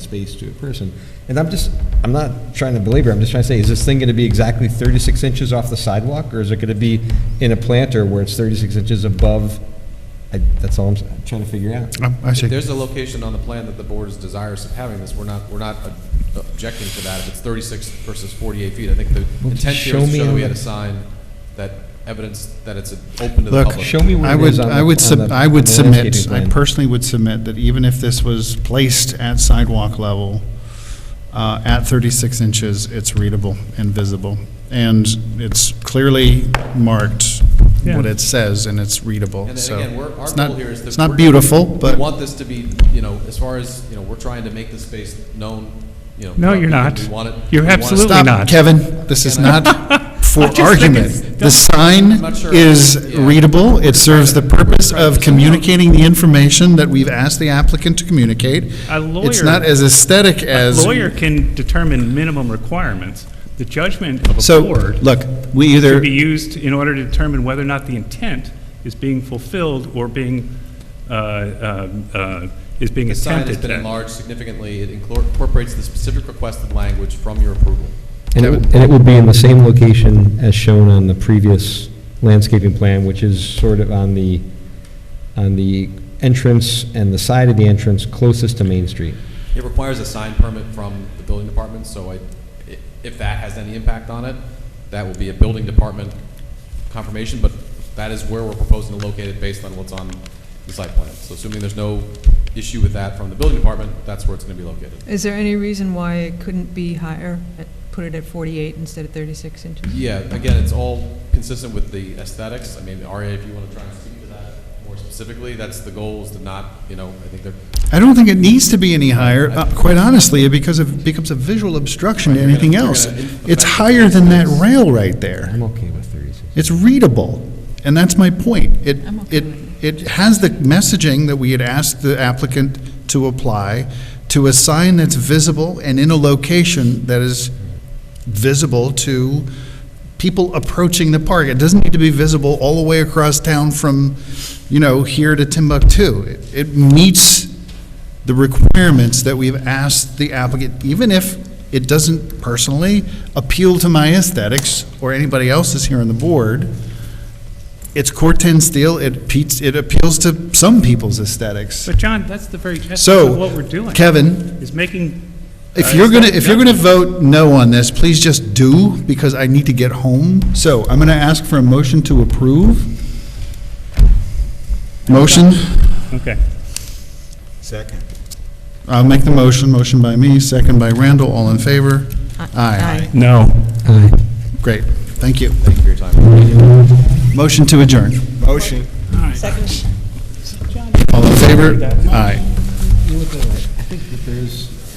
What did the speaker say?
space to a person. And I'm just, I'm not trying to belabor, I'm just trying to say, is this thing going to be exactly 36 inches off the sidewalk? Or is it going to be in a planter where it's 36 inches above? I- That's all I'm s- trying to figure out. Um, I If see. there's a location on the plan that the board is desirous of having this, we're not, we're not ob- objecting to that. If it's 36 versus 48 feet, I think the intent here show is to me show on that we had the- a sign that evidence that it's open to the Look, public. Show me where I it is would, on the- I would, on sub- the- I on would the submit, landscaping I plan. personally would submit that even if this was placed at sidewalk level, uh, at 36 inches, it's readable and visible. And it's clearly marked what Yeah. it says, and it's readable, And so. then again, we're, our it's not- goal here is that. It's not we're- beautiful, We but. want this to be, you know, as far as, you know, we're trying to make this space known, you know. No, you're we- not. We want it. You're we want it- absolutely Stop, not. Kevin, this is not for I just think it's- argument. The sign I'm not sure. is Yeah. readable, it serves the purpose of Right. communicating the information that we've asked the applicant to communicate. A It's lawyer- not as aesthetic A as. lawyer can determine minimum requirements. The judgment of a So, board look, we either, should be used in order to determine whether or not the intent is being fulfilled or being, uh, uh, uh, is being The sign has attempted. been at. enlarged significantly. It inclor- incorporates the specific requested language from your approval. And it, would- and it would be in the same location as shown on the previous landscaping plan, which is sort of on the, on the entrance and the side of the entrance closest to Main Street. It requires a sign permit from the building department, so I, i- if that has any impact on it, that will be a building department confirmation, but that is where we're proposing to locate it based on what's on the site plan. So assuming there's no issue with that from the building department, that's where it's gonna be located. Is there any reason why it couldn't be higher, at- put it at 48 instead of 36 inches? Yeah, again, it's all consistent with the aesthetics. I mean, Aria, if you wanna try and speak to that more specifically, that's the goal, is to not, you know, I think they're, I don't think it needs to be any higher, uh, quite honestly, because it becomes a visual obstruction to Right, you're anything gonna- you're else. gonna in- It's affect- higher than that rail right there. I'm okay with 36. It's readable, and that's my point. It, I'm okay it, with it has the messaging that we had asked the applicant to apply to a sign that's visible and in a location that is visible to people approaching the park. It doesn't need to be visible all the way across town from, you know, here to Timbuktu. It- It meets the requirements that we've asked the applicant, even if it doesn't personally appeal to my aesthetics or anybody else's here on the board, it's Corten steel, it peats, it appeals to some people's aesthetics. But John, that's the very essence So, of what we're doing. Kevin, Is making. if uh, you're gonna, it's not if you're gonna judgment. vote no on this, please just do, because I need to get home. So I'm gonna ask for a motion to approve. Motion, Okay. Second. I'll make the motion, motion by me, second by Randall, all in favor? No. Great, thank you. thank you for your time. Motion to adjourn. Motion. All in favor? Aye. I think that there's